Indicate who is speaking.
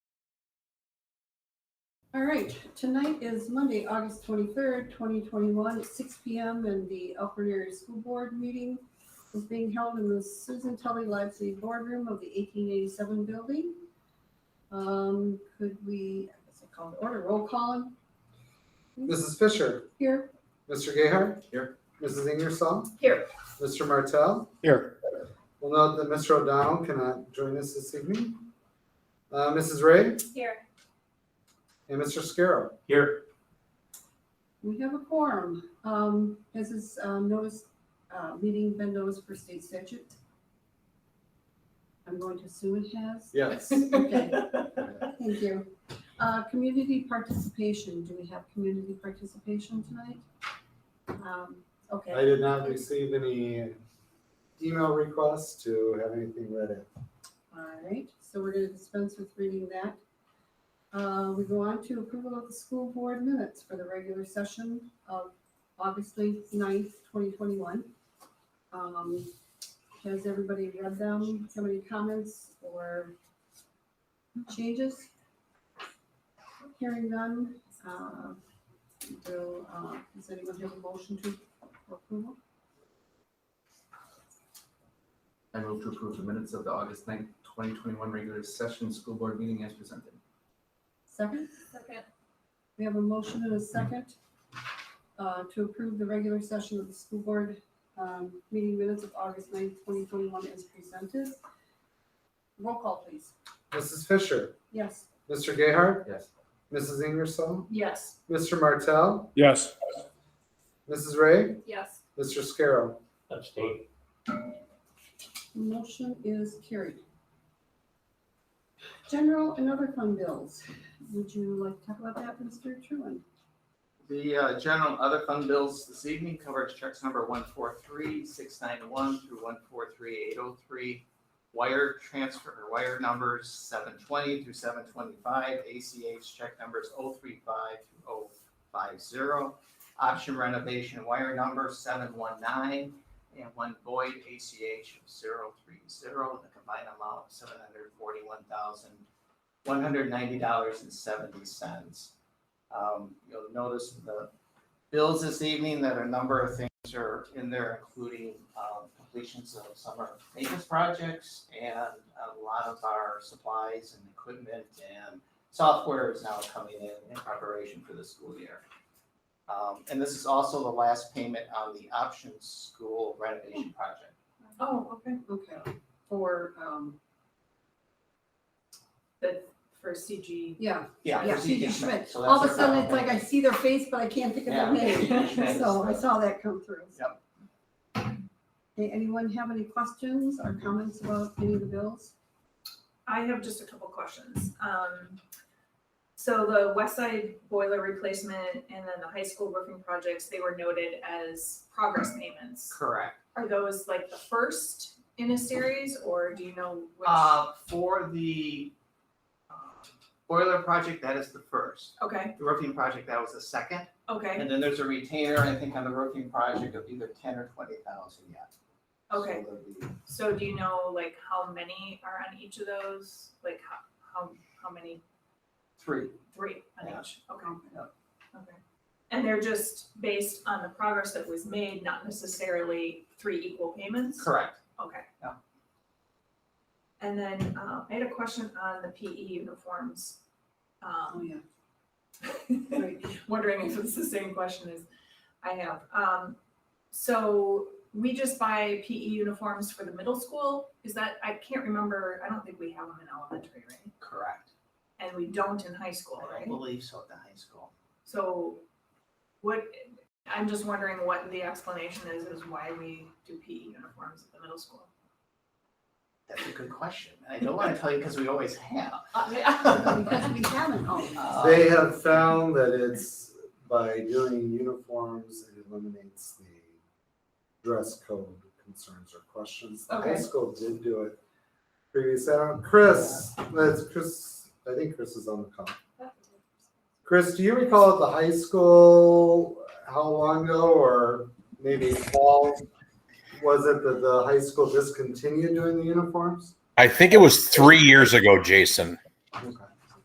Speaker 1: All right, tonight is Monday, August twenty-third, twenty twenty-one, at six P M. And the Elkhorn Area School Board meeting is being held in the Susan Tully Lively Boardroom of the eighteen eighty-seven building. Um, could we, I guess I call it order, roll calling
Speaker 2: Mrs. Fisher,
Speaker 1: here?
Speaker 2: Mr. Gayheart.
Speaker 3: Here.
Speaker 2: Mrs. Ingersoll.
Speaker 4: Here.
Speaker 2: Mr. Martell.
Speaker 3: Here.
Speaker 2: We'll note that Mr. O'Donnell cannot join us this evening. Uh, Mrs. Ray
Speaker 4: Here.
Speaker 2: and Mr. Scarrow.
Speaker 3: Here.
Speaker 1: We have a quorum. Um, has this, um, notice, uh, meeting been noticed for state statute? I'm going to assume it has.
Speaker 2: Yes.
Speaker 1: Okay, thank you. Uh, community participation. Do we have community participation tonight? Um, okay.
Speaker 2: I did not receive any email requests to have anything read in.
Speaker 1: All right, so we're gonna dispense with reading that. Uh, we go on to approval of the school board minutes for the regular session of August 9th, twenty twenty-one. Um, has everybody read them? Have any comments or changes? Hearing none, uh, will, uh, does anyone have a motion to approval?
Speaker 3: I move to approve the minutes of the August 9th, 2021 regular session school board meeting as presented.
Speaker 1: Second?
Speaker 4: Second.
Speaker 1: We have a motion and a second uh, to approve the regular session of the school board um, meeting minutes of August 9th, 2021 as presented. Roll call, please.
Speaker 2: Mrs. Fisher,
Speaker 1: Yes.
Speaker 2: Mr. Gayheart,
Speaker 3: Yes.
Speaker 2: Mrs. Ingersoll,
Speaker 1: Yes.
Speaker 2: Mr. Martell,
Speaker 5: Yes.
Speaker 2: Mrs. Ray,
Speaker 4: Yes.
Speaker 2: Mr. Scarrow.
Speaker 5: Abstain.
Speaker 1: Motion is carried. General and other fund bills. Would you like to talk about that, Mr. Truand?
Speaker 6: The uh, general and other fund bills this evening covers checks number one four three six nine one through one four three eight oh three. Wire transfer, or wire numbers seven twenty through seven twenty-five, ACH check numbers oh three five through oh five zero. Option renovation wire number seven one nine and one void ACH zero three zero, the combined amount seven hundred forty-one thousand one hundred ninety dollars and seventy cents. Um, you'll notice the bills this evening that a number of things are in there, including, um, completions of summer maintenance projects and a lot of our supplies and equipment and software is now coming in in preparation for the school year. Um, and this is also the last payment on the options school renovation project.
Speaker 4: Oh, okay.
Speaker 1: Okay, for, um,
Speaker 4: But for CG.
Speaker 1: yeah,
Speaker 6: Yeah.
Speaker 1: yeah,
Speaker 6: for
Speaker 1: she
Speaker 6: CG
Speaker 1: just
Speaker 6: Schmidt,
Speaker 1: Schmidt.
Speaker 6: so
Speaker 1: All of
Speaker 6: that's
Speaker 1: a
Speaker 6: our-
Speaker 1: sudden, it's like I see their face, but I can't think of their
Speaker 6: Yeah,
Speaker 1: name.
Speaker 6: CG Schmidt is
Speaker 1: So I
Speaker 6: the-
Speaker 1: saw that come through.
Speaker 6: Yep.
Speaker 1: Okay, anyone have any questions or comments about any of the bills?
Speaker 7: I have just a couple questions. Um, so the west side boiler replacement and then the high school roofing projects, they were noted as progress payments.
Speaker 6: Correct.
Speaker 7: Are those like the first in a series or do you know which?
Speaker 6: Uh, for the uh, boiler project, that is the first.
Speaker 7: Okay,
Speaker 6: The roofing project, that was the second.
Speaker 7: okay,
Speaker 6: And then there's a retainer, I think, on the roofing project of either ten or twenty thousand yet. So
Speaker 7: okay.
Speaker 6: there'll be-
Speaker 7: So do you know like how many are on each of those? Like how, how, how many?
Speaker 6: Three.
Speaker 7: Three on
Speaker 6: Yeah.
Speaker 7: each, okay.
Speaker 6: Yeah.
Speaker 7: Okay. And they're just based on the progress that was made, not necessarily three equal payments?
Speaker 6: Correct.
Speaker 7: Okay.
Speaker 6: Yeah.
Speaker 7: And then, uh, I had a question on the PE uniforms.
Speaker 1: Oh,
Speaker 7: Um,
Speaker 1: yeah.
Speaker 6: Oh,
Speaker 1: Right.
Speaker 7: wondering if it's the same question as I have. Um, so we just buy PE uniforms for the middle school? Is that, I can't remember, I don't think we have them in elementary, right?
Speaker 6: Correct.
Speaker 7: And we don't in high school,
Speaker 6: I
Speaker 7: right?
Speaker 6: don't believe so at the high school.
Speaker 7: So what, I'm just wondering what the explanation is, is why we do PE uniforms at the middle school.
Speaker 6: That's a good question. And I don't want to tell you because we always have.
Speaker 1: Because we haven't, oh,
Speaker 6: Uh,
Speaker 2: They have found that it's by doing uniforms, it eliminates the dress code concerns or questions. The high
Speaker 7: Okay.
Speaker 2: school did do it previously. I don't- Chris, that's Chris, I think Chris is on the call. Chris, do you recall at the high school, how long ago or maybe fall? Was it that the high school discontinued doing the uniforms?
Speaker 8: I think it was three years ago, Jason.
Speaker 2: Okay.